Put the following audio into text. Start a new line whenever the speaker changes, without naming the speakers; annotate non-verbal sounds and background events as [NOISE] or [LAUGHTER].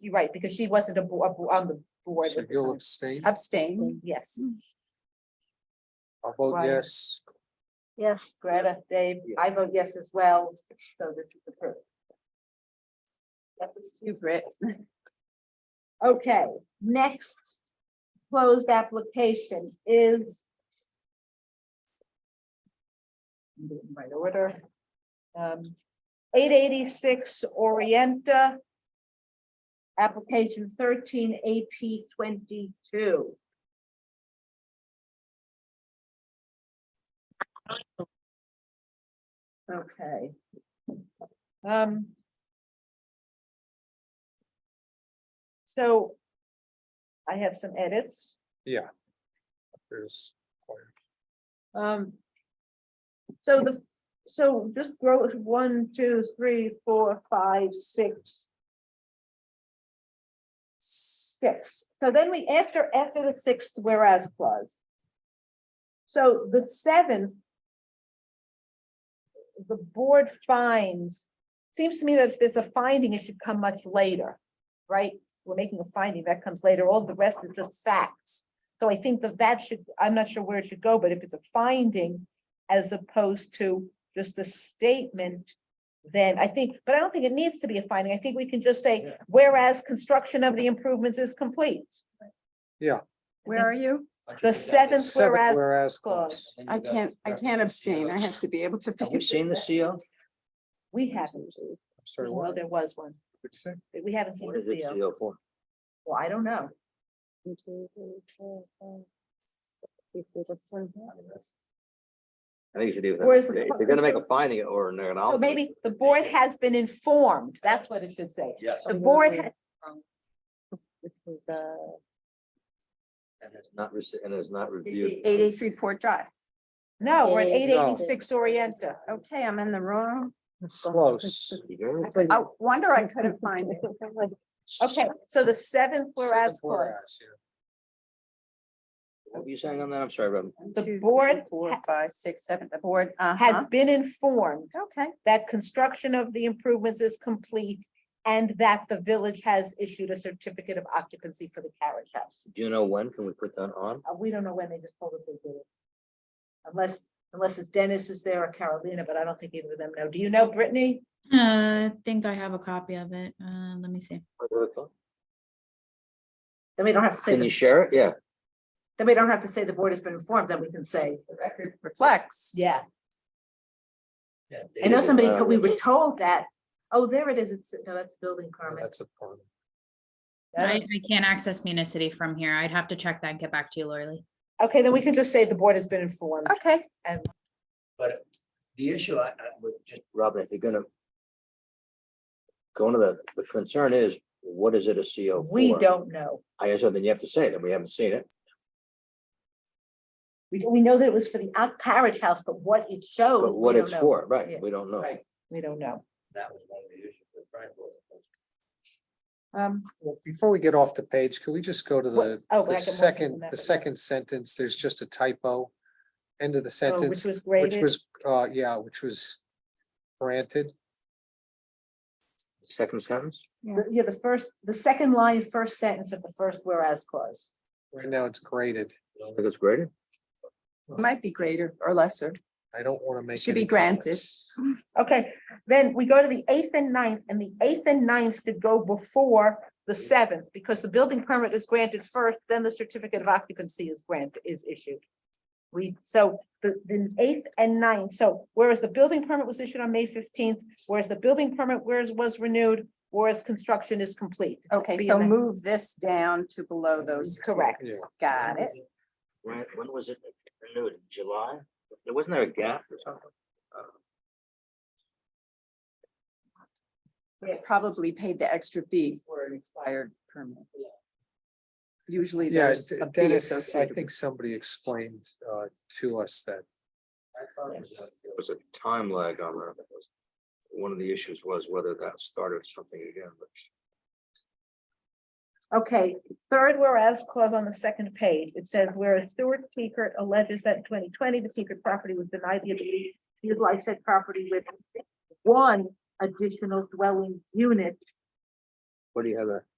You're right, because she wasn't a bo- a bo- on the board.
So
with the
you'll
time.
abstain?
Abstain.
Yes,
I'll vote
Right.
yes.
yes, Greta, Dave, I vote yes as well, so this is approved. That was two.
You, Britt.
Okay, next closed application is. I'm doing Right order. Um, Eight eighty-six Orienta. Application thirteen AP twenty-two. Okay. Um. So I have some edits.
Yeah. There's,
Um. So the, so just grow one, two, three, four, five, six. Six. So then we, after, after the sixth whereas clause. So the seventh. The board finds, seems to me that if there's a finding, it should come much later, right? We're making a finding that comes later. All the rest is just facts. So I think that that should, I'm not sure where it should go, but if it's a finding as opposed to just a statement, then I think, but I don't think it needs to be a finding. I think we can just say,
Yeah.
whereas construction of the improvements is complete.
Yeah.
Where are you?
The seventh
seventh
whereas,
whereas
clause.
clause.
I can't, I can't abstain. I have to be able to
Have we
finish.
seen the CO?
we haven't,
I'm sorry,
well,
what did
there was one,
you say?
but we haven't seen
What
the
is it
deal.
CO for?
Well, I don't know.
I think you should do
Or is
that.
it-
If you're gonna make a finding or an acknowledgement.
So Oh, maybe the board has been informed. That's what it should say.
Yeah.
The board, ha-
And it's not, rece- and it's not reviewed.
Eight eighty-three Port Drive.
no, we're at eight
No.
eighty-six Orienta.
Okay, I'm in the wrong.
Close.
You hear me?
I wonder I [LAUGHS] couldn't find it.
Okay, so the seventh whereas clause.
Seventh whereas, yeah.
What were you saying on that? I'm sorry, Robin.
The board ha-
five, six, seven, the board, uh-huh.
has been informed
Okay,
that construction of the improvements is complete and that the village has issued a certificate of occupancy for the carriage house.
Do you know when? Can we put that on?
Uh, We don't know when they just told us they did it. Unless, unless it's Dennis is there or Carolina, but I don't think either of them know. Do you know, Brittany?
Uh, I think I have a copy of it. Uh, let me see.
Then we don't have to say,
Can you
the-
share it? Yeah.
then we don't have to say the board has been informed, then we can say. The record
flex.
Yeah, I know somebody,
Uh,
we were told that. Oh, there it is. It's, no, that's building permit.
That's a problem.
I, I can't access Municity from here. I'd have to check that and get back to you, Lori Lee.
Okay, then we can just say the board has been informed.
Okay,
But the issue I, I would just, Robin, if you're gonna. Going to the, the concern is, what is it a CO for?
We don't know.
I guess then you have to say that we haven't seen it.
We, we know that it was for the out- carriage house, but what it showed.
But
Oh, we
what
don't
it's
know.
for, right,
Yeah.
we don't know.
Right. We don't know.
That was one of the issues with Frank was.
Um,
Well, Before we get off the page, could we just go to
What-
the,
oh,
the
back and forth
second,
and that,
the
yeah.
second sentence, there's just a typo. End of the
oh, which
sentence,
was
which
graded.
was, uh, yeah, which was granted.
Second sentence?
The- Yeah, the first, the second line, first sentence of the first whereas clause.
Right now it's graded.
You don't think it's graded?
might be greater or lesser.
I don't want to make.
Should be
any
granted.
comments.
Okay, then we go to the eighth and ninth, and the eighth and ninth could go before the seventh, because the building permit is granted first, then the certificate of occupancy is granted, is issued. We, so the, the eighth and ninth, so whereas the building permit was issued on May fifteenth, whereas the building permit whereas was renewed, whereas construction is complete.
Okay,
Be
so
in the-
move this down to below those.
Correct.
Yeah.
Got it.
Right, when was it renewed? July? There Wasn't there a gap or something?
They Probably paid the extra fee for an expired permit. Usually
Yeah,
there's
D-
a fee
Dennis, I
associated.
think
with-
somebody explained uh, to us that
There was a time lag on that. That was- One of the issues was whether that started something again, but.
Okay, third whereas clause on the second page, it says whereas Stuart Seekert alleges that in twenty twenty, the secret property was denied the ability to utilize said property with one additional dwelling unit.
What do you have there?